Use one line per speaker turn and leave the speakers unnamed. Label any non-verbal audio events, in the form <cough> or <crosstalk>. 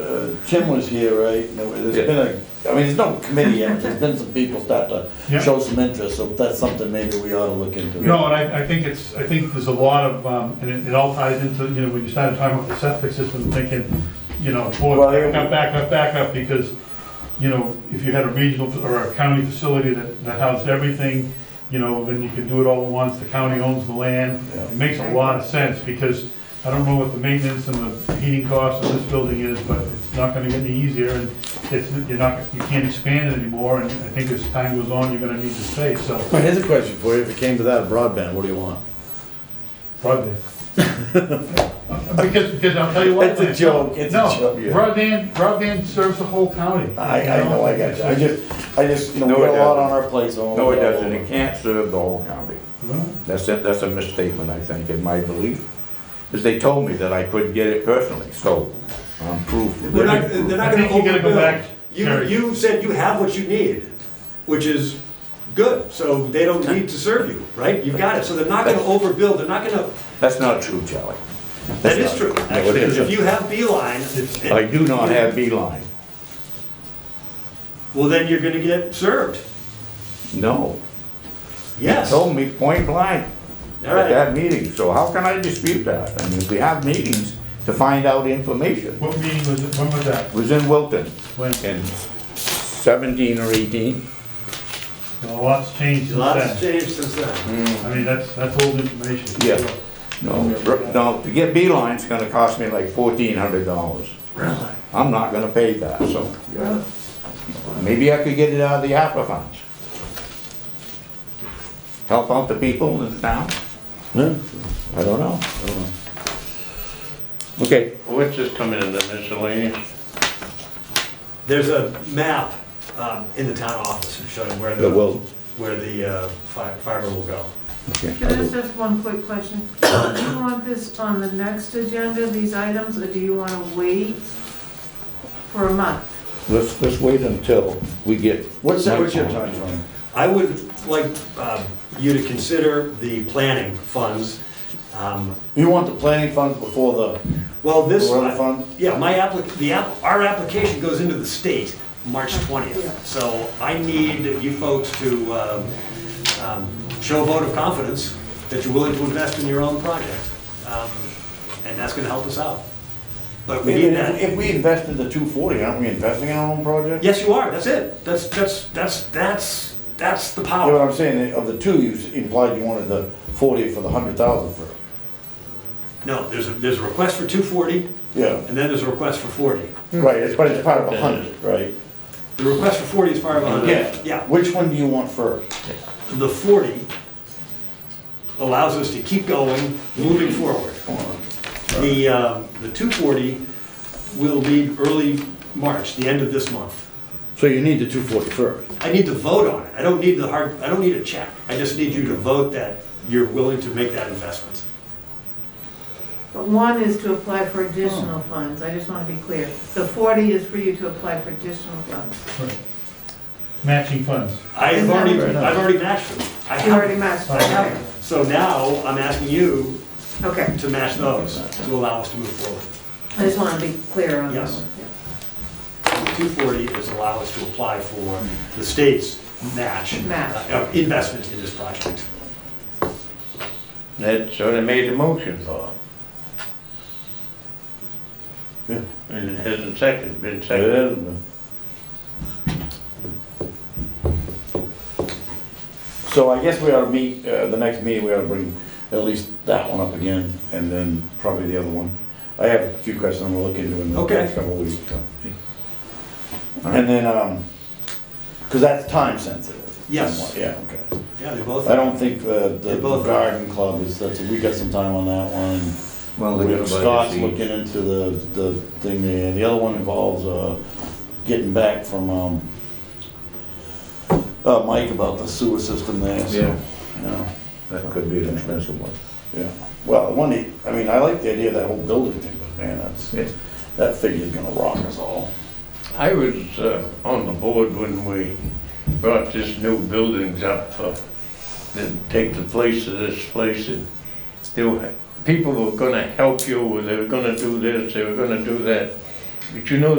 Uh, Tim was here, right, and there- there's
Yeah.
been a, I mean, there's no committee yet, there's been some people start to
Yeah.
show some interest, so that's something maybe we ought to look into.
No, and I, I think it's, I think there's a lot of, um, and it, it all ties into, you know, when you started talking about the septic system, thinking, you know, boy,
Right.
back up, back up, back up, because, you know, if you had a regional or a county facility that, that housed everything, you know, then you could do it all at once, the county owns the land.
Yeah.
It makes a lot of sense, because I don't know what the maintenance and the heating costs of this building is, but it's not gonna get any easier, and it's, you're not, you can't expand it anymore, and I think as time goes on, you're gonna need the space, so,
Well, Here's a question for you, if it came to that broadband, what do you want?
Broadband. <laughs> Because, because I'll tell you what.
It's a joke, it's a
No,
joke, yeah.
Broadband, broadband serves the whole county.
I, I know, I got you, I just, I just, you know, we
No,
got
it
a lot on
doesn't.
our plate, so.
No, it doesn't, it can't serve the whole county.
Well,
That's, a- that's a misstatement, I think, in my belief, because they told me that I couldn't get it personally, so I'm proof.
They're not, they're
I
not gonna
think you gotta go back,
overbill. You,
Jerry.
you said you have what you need, which is good, so they don't need to serve you, right? You've got it, so they're not gonna overbill, they're not gonna,
That's not true, Charlie.
that is true.
No, it
actually, 'cause If
isn't.
you have Beeline,
I do not have Beeline,
well, then you're gonna get served,
no. They
yes.
Told me point blank
All
at
right.
that meeting, so how can I dispute that? I mean, we have meetings to find out information.
What meeting was it, when was that?
It was in Wilton
When,
in seventeen or eighteen.
a lot's changed since
Lots
then.
changed since
Mm.
then.
I mean, that's, that's old information.
Yeah. No, no, to get Beeline's gonna cost me like fourteen hundred dollars. Really? I'm not gonna pay that, so. Maybe I could get it out of the ARPA funds. Help out the people in the town? I don't know. Okay.
What's this coming in the miscellaneous?
There's a map, um, in the town office showing where the,
The will.
where the, uh, fi- fiber will go.
okay.
Can I just ask one quick question? Do you want this on the next agenda, these items, or do you want to wait for a month?
Let's, let's wait until we get.
What's, that-
my
what's your
phone.
timeframe?
I would like um, you to consider the planning funds. Um,
You want the planning funds before the,
Well, this,
Or other fund?
yeah, my applic, the, app- our application goes into the state March 20th. So I need you folks to um, um, show a vote of confidence that you're willing to invest in your own project. Um, And that's going to help us out. But we need
if,
that.
if we invested the two forty, aren't we investing in our own project?
Yes, you are, that's it. That's, that's, that's, that's, that's the
Yeah, but
power.
I'm saying, of the two, you s- implied you wanted the forty for the hundred thousand for,
No, there's a, there's a request for 240,
yeah,
and then there's a request for 40.
right, it's, but it's part of a hundred, right?
The request for 40 is part of 100.
Which one do you want first?
The 40 allows us to keep going, moving forward. The, uh, the 240 will be early March, the end of this month.
So you need the two forty first.
I need to vote on it. I don't need the hard, I don't need a check. I just need you to vote that you're willing to make that investment.
But one is to apply for additional
Oh.
funds, I just want to be clear. The 40 is for you to apply for additional funds.
Matching funds.
I have already, I've already matched them. I
You already
have.
matched,
I have.
okay.
them. So now I'm asking you
Okay,
to match those to allow us to move forward.
I just want to be clear on that
Yes.
one. yeah.
The 240 is allow us to apply for the state's match.
Match.
uh, Investment in this project.
That sort of made the motion.
And it hasn't seconded, been seconded.
So I guess we ought to meet, uh, the next meeting, we ought to bring at least that one up again, and then probably the other one. I have a few questions I'm gonna look into in the
Okay.
next couple of weeks. so. And then, um, cause that's time sensitive.
Yes.
Yeah, okay.
Yeah, they both.
I don't think the, the
They both are.
garden club is, that's, we got some time on that one.
Well, they're gonna
We-
buy the
Scott's
seeds.
looking into the, the thing there, the other one involves, uh, getting back from, um, uh, Mike about the sewer system there, so, yeah,
That could be an expensive one.
yeah. Well, one, he- I mean, I like the idea of that whole building thing, but man, that's,
Yeah.
that figure's gonna rock us all.
I was uh, on the board when we brought this new buildings up uh, to take the place of this place. and There were, people were gonna help you, or they were gonna do this, they were gonna do that. But you know,